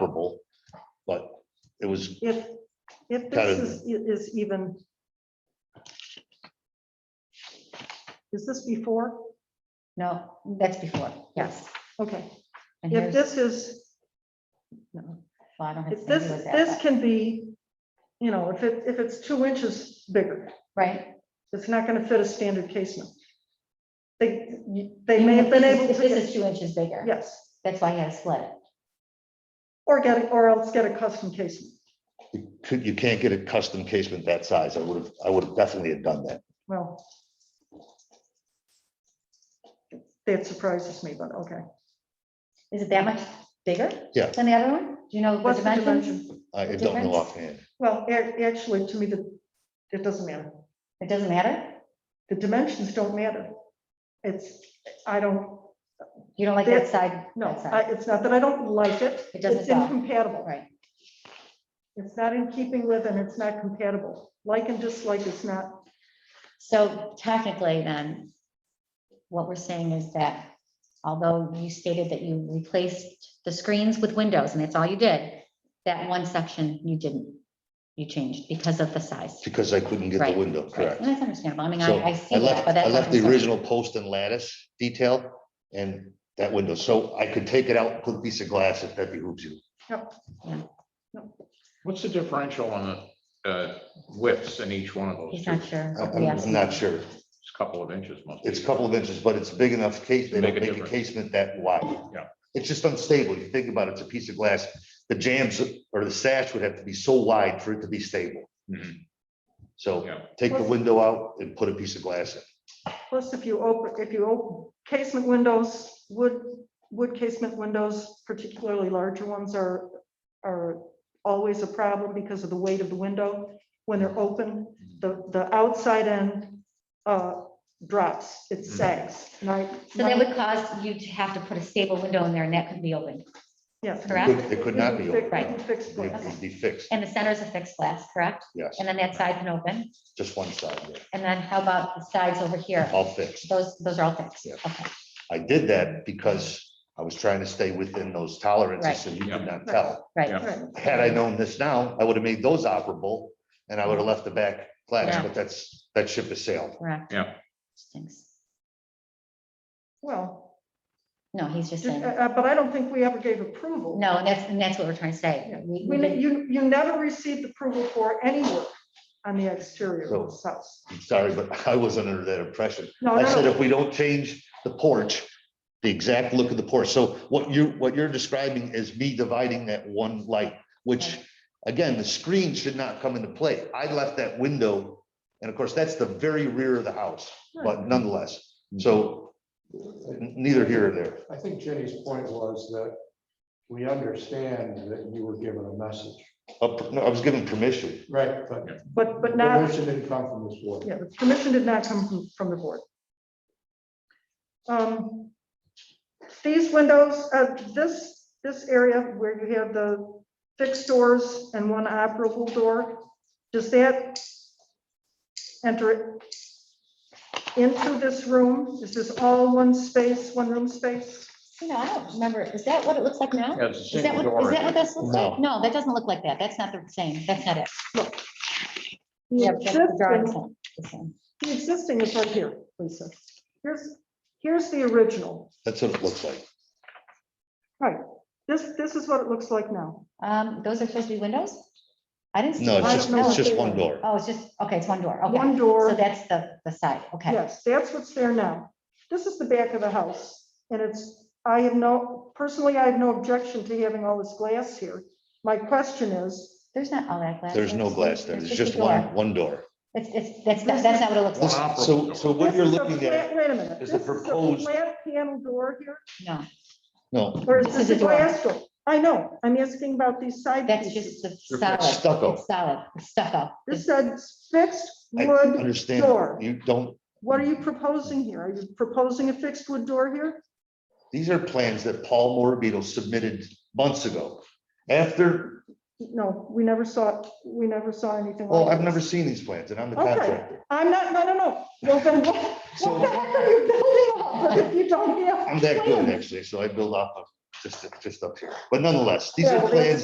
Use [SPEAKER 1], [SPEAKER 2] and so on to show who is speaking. [SPEAKER 1] was,
[SPEAKER 2] If, if
[SPEAKER 1] Kind
[SPEAKER 2] this
[SPEAKER 1] of-
[SPEAKER 2] is, is even. Is this before?
[SPEAKER 3] No, that's before, yes.
[SPEAKER 2] Okay,
[SPEAKER 3] And
[SPEAKER 2] if
[SPEAKER 3] here's,
[SPEAKER 2] this is,
[SPEAKER 3] no, well, I don't have
[SPEAKER 2] if
[SPEAKER 3] to
[SPEAKER 2] this,
[SPEAKER 3] do with
[SPEAKER 2] this
[SPEAKER 3] that, but-
[SPEAKER 2] can be, you know, if it, if it's two inches bigger,
[SPEAKER 3] right?
[SPEAKER 2] it's not gonna fit a standard casement. They, they may have been
[SPEAKER 3] If this-
[SPEAKER 2] able to,
[SPEAKER 3] If this is
[SPEAKER 2] get-
[SPEAKER 3] two inches bigger.
[SPEAKER 2] yes,
[SPEAKER 3] That's why I had to split it.
[SPEAKER 2] or get, or else get a custom casement.
[SPEAKER 1] you could- you can't get a custom casement that size. I would have, I would have definitely have done that.
[SPEAKER 2] Well. That surprises me, but okay.
[SPEAKER 3] Is it that much bigger?
[SPEAKER 1] Yeah.
[SPEAKER 3] Than the other one? Do you know the
[SPEAKER 2] What's the
[SPEAKER 3] dimensions?
[SPEAKER 2] dimension?
[SPEAKER 1] I
[SPEAKER 3] The
[SPEAKER 1] don't know
[SPEAKER 3] difference?
[SPEAKER 1] offhand.
[SPEAKER 2] Well, ac- actually, to me, the, it doesn't matter.
[SPEAKER 3] It doesn't matter?
[SPEAKER 2] The dimensions don't matter. It's, I don't,
[SPEAKER 3] You don't like that side?
[SPEAKER 2] no,
[SPEAKER 3] that side,
[SPEAKER 2] I- it's not that I don't like it.
[SPEAKER 3] It doesn't
[SPEAKER 2] It's
[SPEAKER 3] sell.
[SPEAKER 2] incompatible.
[SPEAKER 3] Right,
[SPEAKER 2] It's not in keeping with and it's not compatible. Like and dislike is not,
[SPEAKER 3] so technically then, what we're saying is that although you stated that you replaced the screens with windows and that's all you did, that one section you didn't, you changed because of the size.
[SPEAKER 1] Because I couldn't get the
[SPEAKER 3] Right,
[SPEAKER 1] window,
[SPEAKER 3] Right,
[SPEAKER 1] correct.
[SPEAKER 3] And that's understandable. I mean,
[SPEAKER 1] So
[SPEAKER 3] I, I see that,
[SPEAKER 1] left-
[SPEAKER 3] but that's.
[SPEAKER 1] I
[SPEAKER 3] not
[SPEAKER 1] left the
[SPEAKER 3] concern.
[SPEAKER 1] original post and lattice detail and that window. So I could take it out, put a piece of glass if that behooves you.
[SPEAKER 4] What's the differential on the uh, widths in each one of those?
[SPEAKER 3] He's
[SPEAKER 4] two?
[SPEAKER 3] not
[SPEAKER 4] It's
[SPEAKER 3] sure.
[SPEAKER 1] I-
[SPEAKER 3] what we
[SPEAKER 1] I'm
[SPEAKER 3] asked.
[SPEAKER 1] I'm not sure.
[SPEAKER 4] a couple of inches must be.
[SPEAKER 1] It's a couple of inches, but it's big enough case, they
[SPEAKER 4] Make
[SPEAKER 1] don't
[SPEAKER 4] a
[SPEAKER 1] make a
[SPEAKER 4] difference.
[SPEAKER 1] casement that wide.
[SPEAKER 4] Yeah.
[SPEAKER 1] It's just unstable. You think about it, it's a piece of glass. The jams or the sash would have to be so wide for it to be stable.
[SPEAKER 4] Mhm.
[SPEAKER 1] So
[SPEAKER 4] Yeah.
[SPEAKER 1] take the window out and put a piece of glass in.
[SPEAKER 2] plus if you open, if you open casement windows, wood, wood casement windows, particularly larger ones are, are always a problem because of the weight of the window. When they're open, the, the outside end uh, drops, it
[SPEAKER 1] Mm-hmm.
[SPEAKER 2] sags. And I-
[SPEAKER 3] So that would cause you to have to put a stable window in there and that could be open.
[SPEAKER 2] Yes.
[SPEAKER 3] Correct.
[SPEAKER 1] It could- It could not be
[SPEAKER 2] Fix-
[SPEAKER 1] open.
[SPEAKER 3] Right.
[SPEAKER 2] Fixed glass.
[SPEAKER 1] It would be fixed,
[SPEAKER 3] And the center is a fixed glass, correct?
[SPEAKER 1] yes,
[SPEAKER 3] And then that side can open.
[SPEAKER 1] just one side, yeah,
[SPEAKER 3] And then how about the sides over here?
[SPEAKER 1] all fixed.
[SPEAKER 3] Those, those are all fixed.
[SPEAKER 1] Yeah.
[SPEAKER 3] Okay,
[SPEAKER 1] I did that because I was trying to stay within those
[SPEAKER 3] Right.
[SPEAKER 1] tolerances, so you could not tell.
[SPEAKER 3] right.
[SPEAKER 4] Yeah.
[SPEAKER 2] Right.
[SPEAKER 1] Had I known this now, I would have made those operable and I would have left the back glass,
[SPEAKER 3] Yeah.
[SPEAKER 1] but that's, that ship has sailed.
[SPEAKER 3] Correct.
[SPEAKER 4] Yeah.
[SPEAKER 3] Stinks.
[SPEAKER 2] Well,
[SPEAKER 3] No, he's just
[SPEAKER 2] just- uh,
[SPEAKER 3] saying,
[SPEAKER 2] uh, but I don't think we ever gave approval.
[SPEAKER 3] no, and that's, and that's what we're trying to
[SPEAKER 2] Yeah.
[SPEAKER 3] say. We-
[SPEAKER 2] We,
[SPEAKER 3] we
[SPEAKER 2] ne-
[SPEAKER 3] didn't-
[SPEAKER 2] you, you never received approval for any work on the exterior of this house.
[SPEAKER 1] I'm Sorry, but I wasn't under that impression.
[SPEAKER 2] Oh, No,
[SPEAKER 1] I
[SPEAKER 2] no,
[SPEAKER 1] said
[SPEAKER 2] no.
[SPEAKER 1] if we don't change the porch, the exact look of the porch, so what you, what you're describing is me dividing that one light, which, again, the screen should not come into play. I left that window, and of course, that's the very rear of the house,
[SPEAKER 2] Hmm.
[SPEAKER 1] but nonetheless, so neither here or there.
[SPEAKER 5] I think Jenny's point was that we understand that you were given a message.
[SPEAKER 1] Uh, no, I was given permission,
[SPEAKER 5] Right. But
[SPEAKER 2] but, but not.
[SPEAKER 5] permission didn't come from this board.
[SPEAKER 2] Yeah, the permission did not come from- from the board. Um, These windows, uh, this, this area where you have the fixed doors and one operable door, does that enter into this room? Is this all one space, one room space?
[SPEAKER 3] You know, I don't remember. Is that what it looks like now?
[SPEAKER 4] Yeah, it's a
[SPEAKER 3] Is that
[SPEAKER 4] single
[SPEAKER 3] what, is
[SPEAKER 4] door.
[SPEAKER 3] that what this looks like?
[SPEAKER 1] No.
[SPEAKER 3] No, that doesn't look like that. That's not the same. That's not it.
[SPEAKER 2] The
[SPEAKER 3] Yeah, that's the drawing's
[SPEAKER 2] existing-
[SPEAKER 3] not the same.
[SPEAKER 2] The existing is right here, Lisa. Here's, here's the original.
[SPEAKER 1] that's what it looks like.
[SPEAKER 2] This, this is what it looks like now.
[SPEAKER 3] Um, those are supposed to be windows? I didn't. see-
[SPEAKER 1] No, it's
[SPEAKER 2] I
[SPEAKER 1] just,
[SPEAKER 2] don't know
[SPEAKER 1] it's
[SPEAKER 2] if
[SPEAKER 1] just
[SPEAKER 2] they
[SPEAKER 1] one
[SPEAKER 2] were.
[SPEAKER 1] door.
[SPEAKER 3] Oh, it's just, okay, it's one door. Okay.
[SPEAKER 2] One door.
[SPEAKER 3] So that's the, the side. Okay.
[SPEAKER 2] Yes, that's what's there now. This is the back of the house, and it's, I have no, personally, I have no objection to having all this glass here. My question is,
[SPEAKER 3] There's not all that glass.
[SPEAKER 1] There's no glass there, there's just
[SPEAKER 3] a door.
[SPEAKER 1] one, one door.
[SPEAKER 3] It's, it's, that's, not- that's not what it looks like.
[SPEAKER 4] Wow.
[SPEAKER 1] So, so what
[SPEAKER 2] this
[SPEAKER 1] you're
[SPEAKER 2] is a
[SPEAKER 1] looking at,
[SPEAKER 2] flat- Wait a minute.
[SPEAKER 1] is the
[SPEAKER 2] this a
[SPEAKER 1] proposed-
[SPEAKER 2] Flat panel door here,
[SPEAKER 3] No,
[SPEAKER 1] no,
[SPEAKER 2] or is
[SPEAKER 3] This
[SPEAKER 2] this
[SPEAKER 3] is
[SPEAKER 2] a
[SPEAKER 3] a door.
[SPEAKER 2] glass door? I know, I'm asking about these side
[SPEAKER 3] that's
[SPEAKER 2] pieces.
[SPEAKER 3] just the
[SPEAKER 4] Your
[SPEAKER 3] solid.
[SPEAKER 1] stucco.
[SPEAKER 3] It's Solid, it's stucco.
[SPEAKER 2] This says fixed
[SPEAKER 1] I
[SPEAKER 2] wood
[SPEAKER 1] understand,
[SPEAKER 2] door.
[SPEAKER 1] you don't,
[SPEAKER 2] What are you proposing here? Are you proposing a fixed wood door here?
[SPEAKER 1] These are plans that Paul Morabito submitted months ago. After,
[SPEAKER 2] No, we never saw, we never saw anything.
[SPEAKER 1] well,
[SPEAKER 2] like
[SPEAKER 1] I've
[SPEAKER 2] this.
[SPEAKER 1] never seen these plans and I'm the
[SPEAKER 2] Okay.
[SPEAKER 1] contractor.
[SPEAKER 2] I'm not, no, no, no. Well, then what,
[SPEAKER 1] So-
[SPEAKER 2] what the heck are you building off of if you don't have?
[SPEAKER 1] I'm that good
[SPEAKER 2] plans?
[SPEAKER 1] actually, so I build off of just, just up here. But nonetheless, these
[SPEAKER 2] Yeah,
[SPEAKER 1] are
[SPEAKER 2] well,
[SPEAKER 1] plans